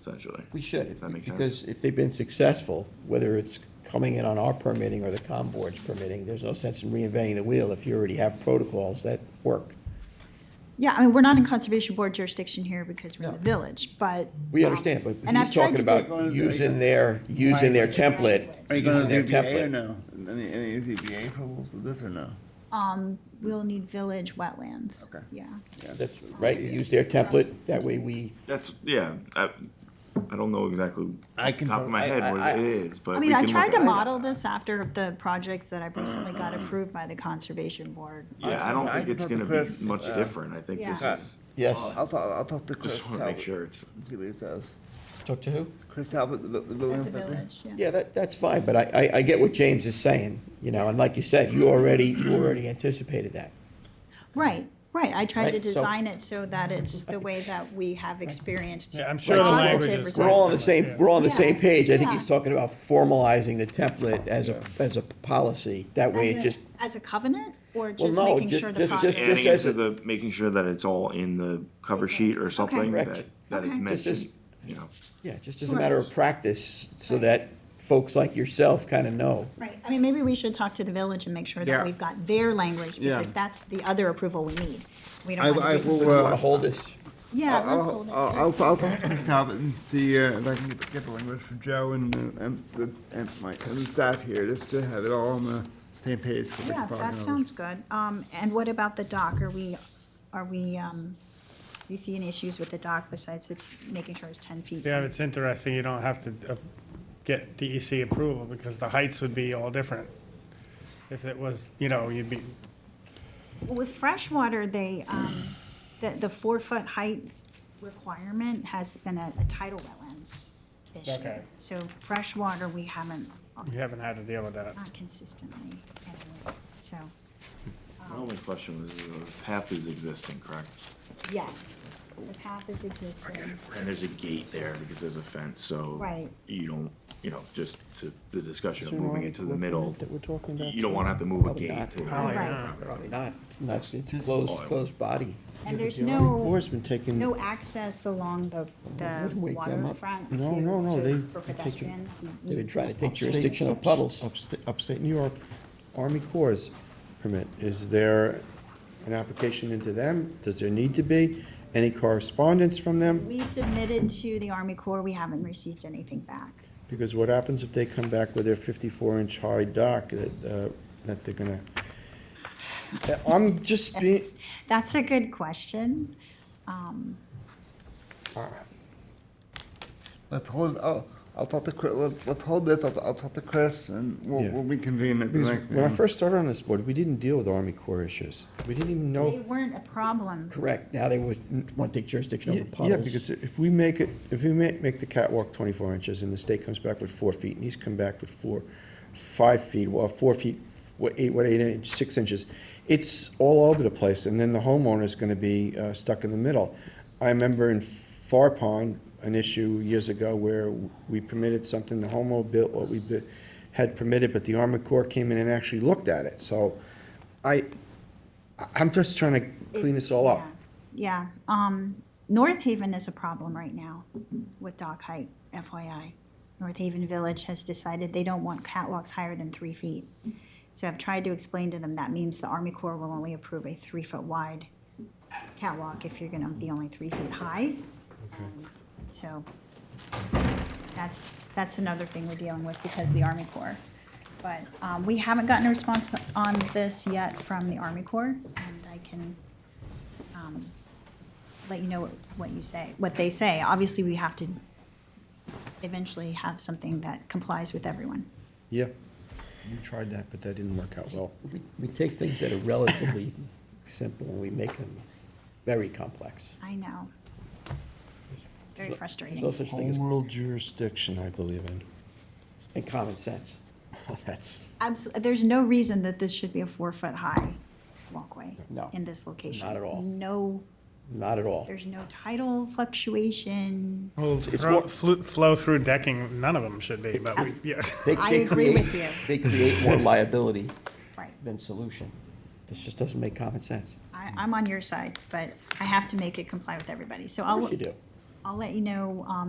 essentially. We should. Does that make sense? Because if they've been successful, whether it's coming in on our permitting or the COM board's permitting, there's no sense in reinventing the wheel if you already have protocols that work. Yeah, I mean, we're not in conservation board jurisdiction here because we're in the No. village, but. um, We understand, but And I've he's tried talking to about just- using their, using their template. Are you gonna using their ZBA or template. no? Any, any ZBA approvals of this or no? Um, we'll need village wetlands. Okay. Yeah. That's right, use their template, that way we, That's, yeah, I, I don't know exactly I off the can top of tell- my I- head I- what I- it is, but. I we mean, I can tried look to at it. model this after the projects that I've recently got approved by the conservation board. Yeah, I I don't can- I think can it's talk to gonna Chris, be much uh, different, I think this Yeah. is, Oh, yes. I'll talk, I'll talk to Chris just wanna make Talbot, sure it's, see what he says. Talk to who? Chris Talbot, the, bu- the building At the inspector? village, yeah. Yeah, that, that's fine, but I, I, I get what James is saying, you know, and like you said, you already, you already anticipated that. Right, right. I tried to Right, so- design it so that it's the way that we have experienced. Yeah, I'm sure the positive language is- We're all on the results. same, we're all on the same Yeah. page, I think Yeah. he's talking about formalizing the template as a, as a policy, that way it As a- just, As a covenant or just no, making ju- sure the just- project? just- adding just as into a- the, making sure that it's all in the cover sheet or something, Correct. that, that it's Okay. meant Just to, as- you know. yeah, just as a matter of practice, so that folks like yourself kind of know. Right, I mean, maybe we should talk to the village and make sure that Yeah. we've got their language, Yeah. because that's the other approval we need. We I- don't I wanna just. will, You uh, want to hold this, Yeah, I'll, let's hold it. I'll, I'll, I'll- I'll talk to Chris Talbot and see uh, if I can get get the language for Joe and, uh, and, the- and my, and the staff here, just to have it all on the same page for the Yeah, department. that sounds good. Um, and what about the dock? Are we, are we, um, you see any issues with the dock besides the, making sure it's ten feet? Yeah, it's interesting, you don't have to uh, get DEC approval, because the heights would be all different. If it was, you know, you'd be, Well, With freshwater, they, um, the, the four-foot height requirement has been a, a tidal wetlands issue. Okay. So freshwater, we haven't, uh, you haven't had to deal with that. not consistently, anyway, so, My only question was, the path is existing, correct? yes, the path is existing. And there's a gate there because there's a fence, so. Right. You don't, you know, just to the discussion of moving it to the middle, you don't wanna have to move a Probably gate not. to. Probably Right. not. probably not, not, it's closed, closed body. And there's Corps no, been taking. no access along the, the wouldn't wake them up. waterfront to, No, no, no, to, they've for taken- pedestrians. They've been trying to take upstate- jurisdiction of puddles. upsta- Upstate New York Army Corps permit. Is there an application into them? Does there need to be? Any correspondence from them? We submitted to the Army Corps, we haven't received anything back. Because what happens if they come back with their fifty-four inch high dock that, uh, that they're gonna? I'm just being, That's, that's a good question. uh, Let's hold, oh, I'll talk to Chris, let- let's hold this, I'll, I'll talk to Chris and we'll, Yeah. we'll reconvene at the because next when I meeting. first started on this board, we didn't deal with Army Corps issues. We didn't even know. They weren't a problem. Correct, now they would want to take jurisdiction Yeah, over puddles. yeah, because if we make it, if we make, make the catwalk twenty-four inches and the state comes back with four feet and he's come back with four, five feet, well, four feet, what, eight, what, eight inch, six inches, it's all over the place and then the homeowner's gonna be, uh, stuck in the middle. I remember in Far Pond, an issue years ago where we permitted something, the homeowner built what we bu- had permitted, but the Army Corps came in and actually looked at it, so I, I- I'm just trying to clean this all up. Yeah, yeah. um, North Haven is a problem right now with dock height, FYI. North Haven Village has decided they don't want catwalks higher than three feet. So I've tried to explain to them that means the Army Corps will only approve a three-foot wide catwalk if you're gonna be only three feet high. And So that's, that's another thing we're dealing with because of the Army Corps. But, um, we haven't gotten a response on this yet from the Army Corps, and I can let you know what, what you say, what they say. Obviously, we have to eventually have something that complies with everyone. Yeah, you tried that, but that didn't work out well. We- We take things that are relatively simple and we make them very complex. I know. It's very There's no frustrating. such thing Home as rule jurisdiction, I believe in. and common sense. That's, Absolutely, there's no reason that this should be a four-foot-high walkway No, in this location. not at all. No, Not at all. there's no tidal fluctuation. Well, it's thro- more- flu- flow-through decking, none of them should be, but we, yeah. They- I they agree create- with you. They create more liability Right. than solution. This just doesn't make common sense. I, I'm on your side, but I have to make it comply with everybody. So I'll, Yes, you do. I'll let you know, um,